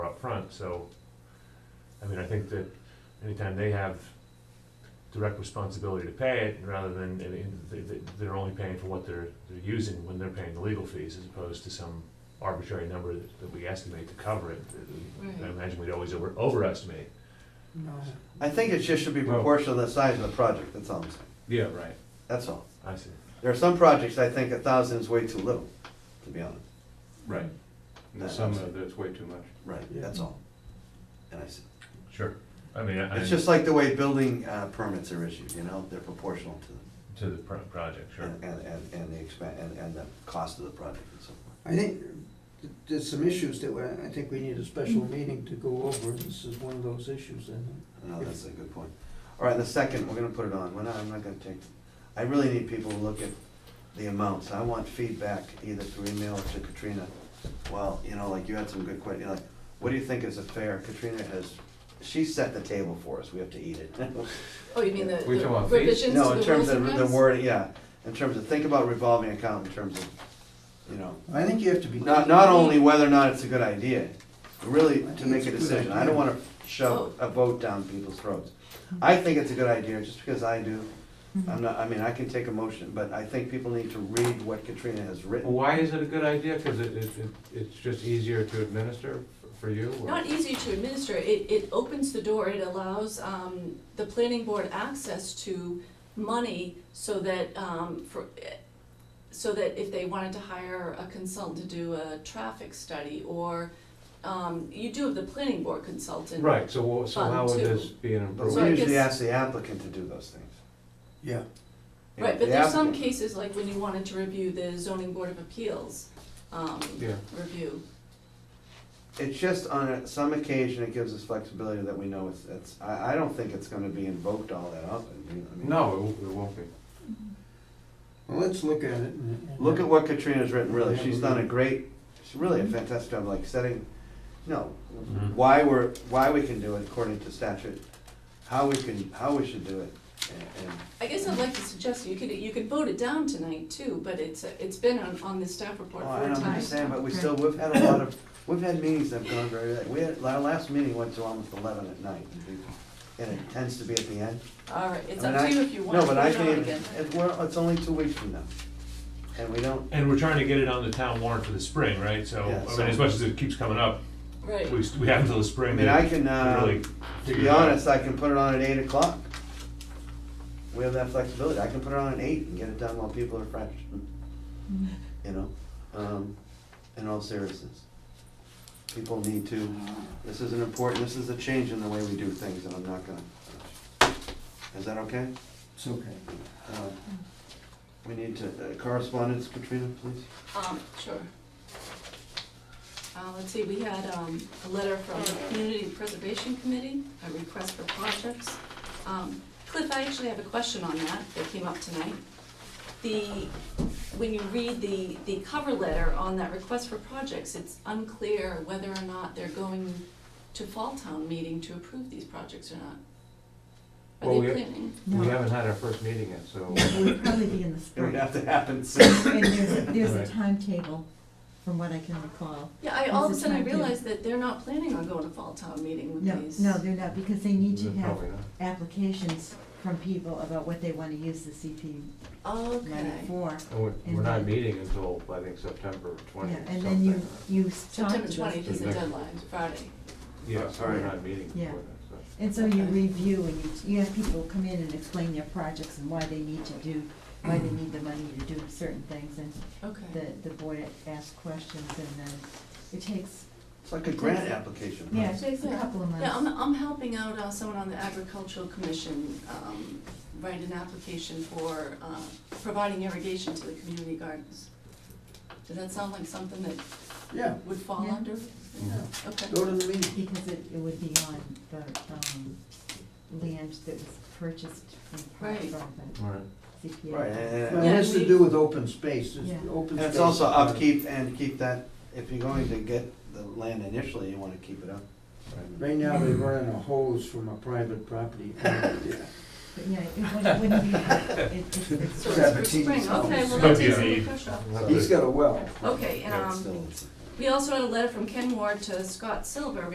front. so, I mean, I think that anytime they have direct responsibility to pay it, rather than, I mean, they- they- they're only paying for what they're, they're using when they're paying the legal fees, as opposed to some arbitrary number that that we estimate to cover it. I Right. imagine we'd always over, overestimate. No. I think it just should be proportional to the size of the project, that's all I'm saying, Yeah, right. that's all. I see. There are some projects I think a thousand is way too little, to be honest. Right. And That's- some of that's way too much. Right, that's all. And I said, Sure. I mean, I, it's just like the way building uh, permits are issued, you know, they're proportional to to the pro- project, sure. them, and, and- and, and the expen and, and the cost of the project and so forth. I think th- there's some issues that we- I think we need a special meeting to go over. This is one of those issues, I think. No, that's a good point. All right, the second, we're gonna put it on, we're not, I'm not gonna take, I really need people to look at the amounts, I want feedback either through email or to Katrina. Well, you know, like you had some good questions, like, what do you think is a fair, Katrina has, she set the table for us, we have to eat it. Oh, you mean the We talking the about fees? revisions No, to in the rules terms and of the regs? word, yeah, in terms of, think about revolving account in terms of, you know, I think you have to be. not, not only whether or not it's a good idea, really to make a decision, I don't wanna shove Oh. a vote down people's throats. I think it's a good idea, just because I do, Mm-hmm. I'm not, I mean, I can take a motion, but I think people need to read what Katrina has Well, written. Why is it a good idea? Because it, it, it- it's just easier to administer f- for you? or- Not easy to administer, it, it opens the door, it allows, um, the planning board access to money so that, um, for, so that if they wanted to hire a consultant to do a traffic study, or, um, you do have the planning board consultant. Right, so, wha- so Fun, how would too. this be an But So we I improvement? usually guess- ask the applicant to do those things. Yeah, You Right, but know, the there's some applicant- cases, like when you wanted to review the zoning board of appeals, um, Yeah. review. It's just on a- some occasion, it gives us flexibility that we know it's, it's, I, I don't think it's gonna be invoked all that often, you know, I mean. No, it w- it won't be. well, let's look at it. and- and- Look at what Katrina's written, really, she's done a great, she's really a fantastic job, like setting, no, Mhm. why we're, why we can do it according to statute, how we can, how we should do it, and, and I guess I'd like to suggest, you could, you could vote it down tonight too, but it's, it's been on, on the staff report Well, for a I time. don't understand, but we still, we've had a lot of, we've had meetings that have gone very, late. we had, our last meeting went to almost eleven at night, and it tends to be at the end. All right, Mm-hmm. it's I mean, up I- to you if you want to No, put but it I on think, again. it, well, it's only two weeks from now, and we don't, And we're trying to get it on the town warrant for the spring, right? So, Yeah, I so- mean, as much as it keeps coming up, Right, we, we have until the spring. I mean, to- I can, uh, to really to figure be it out. honest, I can put it on at eight o'clock. We have that flexibility, I can put it on at eight and get it done while people are fresh, you know, um, in all seriousness. People need to This is an important, this is a change in the way we do things, and I'm not gonna, is that okay? It's okay. Uh, We need to, uh, correspondence, Katrina, please? um, sure. Uh, let's see, we had, um, a letter from the Community Preservation Committee, a request for projects. Um, Cliff, I actually have a question on that, that came up tonight. The, when you read the, the cover letter on that request for projects, it's unclear whether or not they're going to Fall Town meeting to approve these projects or not. Well, Are we- they planning? We No, haven't had our first meeting yet, so. it would probably be in the It would spring. have to happen soon. And there's, a- there's a Right. timetable, from what I can recall. Yeah, I, all of a Is it sudden I time to- realized that they're not planning on going to fall town meeting with No, these. no, they're not, because they need to then have Probably not. applications from people about what they wanna use the CP money Okay, for. And we're, And we're not then- meeting until, I think, September Yeah, twentieth, and then you, something. you talk to September those twentieth is the people. deadline, Friday. Yeah, so we're Alright. not meeting Yeah. before that, so. And so you Okay. review and you, you have people come in and explain their projects and why they need to do, why they need the money to do certain things, and Okay. the, the board asks questions, and then it takes, It's like a grant application. yeah, it takes a Yeah. couple of months. Yeah, I'm, I'm helping out, uh, someone on the agricultural commission, um, write an application for, uh, providing irrigation to the community gardens. Does that sound like something that Yeah, would fall Yeah. under? Okay, go to the meeting. Because it, it would be on the, um, land that was purchased from, part Right. from Alright. the CPA. Right, and, Well, and- it has to do with open space, it's Yeah. open and space. it's also upkeep and keep that, if you're going to get the land initially, you wanna keep it up. Right now, they're running a hose from a private property. But yeah, it wouldn't, it wouldn't be, it, it, it's. so it's for Seventeenth spring, okay, well, sounds- Could that takes be. some of the pressure off. He's got a well. Okay, and, Yeah, it's um, still- we also had a letter from Ken Ward to Scott Silver